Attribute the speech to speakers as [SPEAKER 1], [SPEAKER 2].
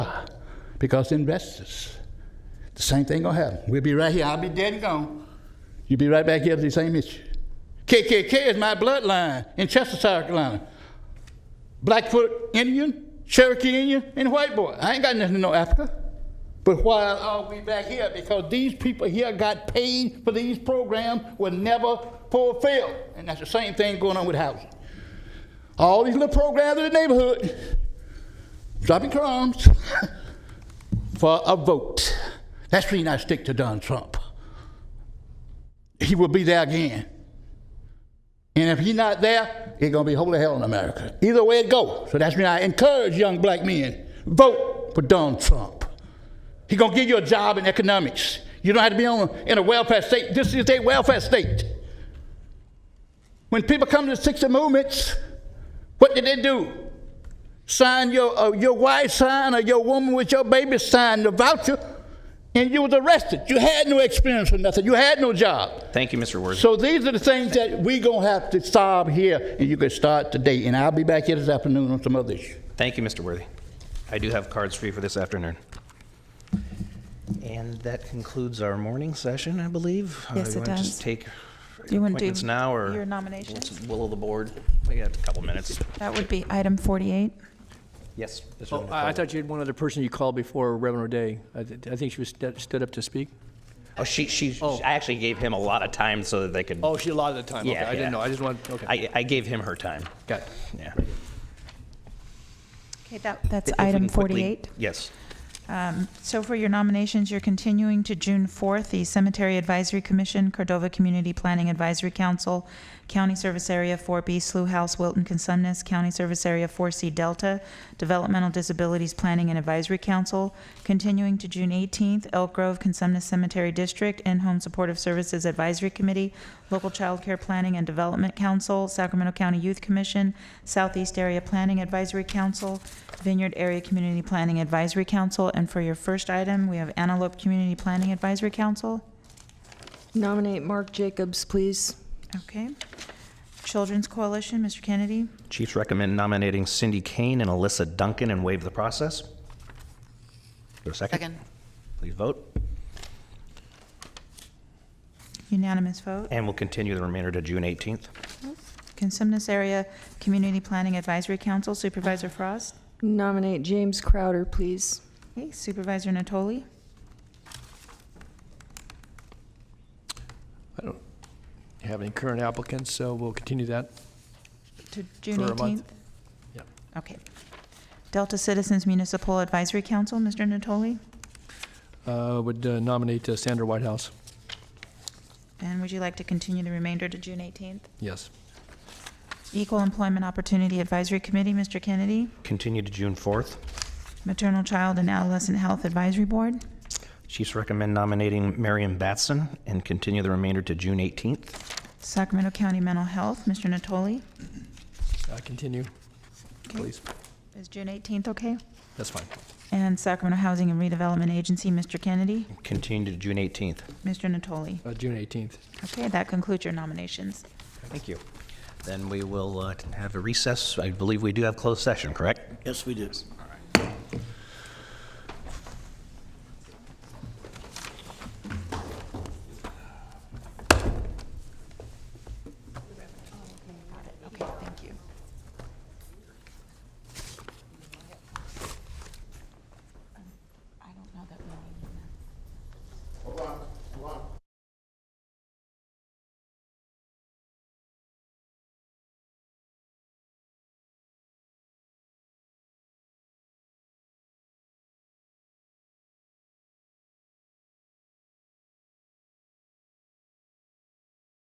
[SPEAKER 1] because investors. The same thing gonna happen. We'll be right here. I'll be dead and gone. You'll be right back here to the same issue. KKK is my bloodline in Chester, South Carolina. Blackfoot Indian, Cherokee Indian, and white boy. I ain't got nothing to no Africa. But why are we back here? Because these people here got paid for these programs were never fulfilled. And that's the same thing going on with housing. All these little programs in the neighborhood, dropping crumbs for a vote. That's the reason I stick to Donald Trump. He will be there again. And if he's not there, it's gonna be holy hell in America. Either way it go. So that's why I encourage young black men, vote for Donald Trump. He's gonna give you a job in economics. You don't have to be on in a welfare state. This is a welfare state. When people come to the 60 movements, what did they do? Sign your uh, your wife sign or your woman with your baby sign the voucher, and you was arrested. You had no experience or nothing. You had no job.
[SPEAKER 2] Thank you, Mr. Worthy.
[SPEAKER 1] So these are the things that we gonna have to solve here, and you can start today. And I'll be back here this afternoon on some other issue.
[SPEAKER 2] Thank you, Mr. Worthy. I do have cards for you for this afternoon. And that concludes our morning session, I believe. Uh,
[SPEAKER 3] Yes,
[SPEAKER 2] you
[SPEAKER 3] it
[SPEAKER 2] wanna
[SPEAKER 3] does.
[SPEAKER 2] Just take
[SPEAKER 3] Do you wanna do
[SPEAKER 2] appointments now, or?
[SPEAKER 3] your nominations?
[SPEAKER 2] what's the Will of the board. We got a couple minutes.
[SPEAKER 3] That would be item 48.
[SPEAKER 2] Yes. Mr.
[SPEAKER 4] Oh,
[SPEAKER 2] Van der
[SPEAKER 4] I I
[SPEAKER 2] Kolk.
[SPEAKER 4] thought you had one other person you called before Reverend O'Day. I th- I think she was st- stood up to speak.
[SPEAKER 2] Oh, she, she,
[SPEAKER 4] Oh.
[SPEAKER 2] I actually gave him a lot of time so that they could.
[SPEAKER 4] Oh, she allotted the time. Okay,
[SPEAKER 2] Yeah, yeah.
[SPEAKER 4] I didn't know. I just wanted, okay.
[SPEAKER 2] I, I gave him her time.
[SPEAKER 4] Got it.
[SPEAKER 2] Yeah.
[SPEAKER 3] Okay, that, that's
[SPEAKER 2] If we
[SPEAKER 3] item
[SPEAKER 2] can quickly-
[SPEAKER 3] 48.
[SPEAKER 2] Yes.
[SPEAKER 3] So for your nominations, you're continuing to June 4th, the Cemetery Advisory Commission, Cordova Community Planning Advisory Council, County Service Area 4B, Slough House, Wilton, Consumnes, County Service Area 4C, Delta, Developmental Disabilities Planning and Advisory Council, continuing to June 18th, Elk Grove, Consumnes Cemetery District, and Home Supportive Services Advisory Committee, Local Child Care Planning and Development Council, Sacramento County Youth Commission, Southeast Area Planning Advisory Council, Vineyard Area Community Planning Advisory Council, and for your first item, we have Antelope Community Planning Advisory Council.
[SPEAKER 5] Nominate Mark Jacobs, please.
[SPEAKER 3] Okay. Children's Coalition, Mr. Kennedy.
[SPEAKER 2] Chiefs recommend nominating Cindy Kane and Alyssa Duncan and waive the process. Is there a second?
[SPEAKER 6] Second.
[SPEAKER 2] Please vote.
[SPEAKER 3] Unanimous vote.
[SPEAKER 2] And we'll continue the remainder to June 18th.
[SPEAKER 3] Consumnes Area Community Planning Advisory Council, Supervisor Frost.
[SPEAKER 5] Nominate James Crowder, please.
[SPEAKER 3] Okay, Supervisor Natoli.
[SPEAKER 4] I don't have any current applicants, so we'll continue that.
[SPEAKER 3] To June
[SPEAKER 4] For a month.
[SPEAKER 3] 18th?
[SPEAKER 4] Yep.
[SPEAKER 3] Okay. Delta Citizens Municipal Advisory Council, Mr. Natoli.
[SPEAKER 4] Uh, Would uh, nominate uh, Sandra Whitehouse.
[SPEAKER 3] And would you like to continue the remainder to June 18th?
[SPEAKER 4] Yes.
[SPEAKER 3] Equal Employment Opportunity Advisory Committee, Mr. Kennedy.
[SPEAKER 2] Continue to June 4th.
[SPEAKER 3] Maternal Child and Adolescent Health Advisory Board.
[SPEAKER 2] Chiefs recommend nominating Marion Batson and continue the remainder to June 18th.
[SPEAKER 3] Sacramento County Mental Health, Mr. Natoli.
[SPEAKER 4] Uh, Continue, please.
[SPEAKER 3] Is June 18th okay?
[SPEAKER 4] That's fine.
[SPEAKER 3] And Sacramento Housing and Redevelopment Agency, Mr. Kennedy.
[SPEAKER 2] Continue to June 18th.
[SPEAKER 3] Mr. Natoli.
[SPEAKER 4] Uh, June 18th.
[SPEAKER 3] Okay, that concludes your nominations.
[SPEAKER 2] Thank you. Then we will uh, have a recess. I believe we do have closed session, correct?
[SPEAKER 7] Yes, we do.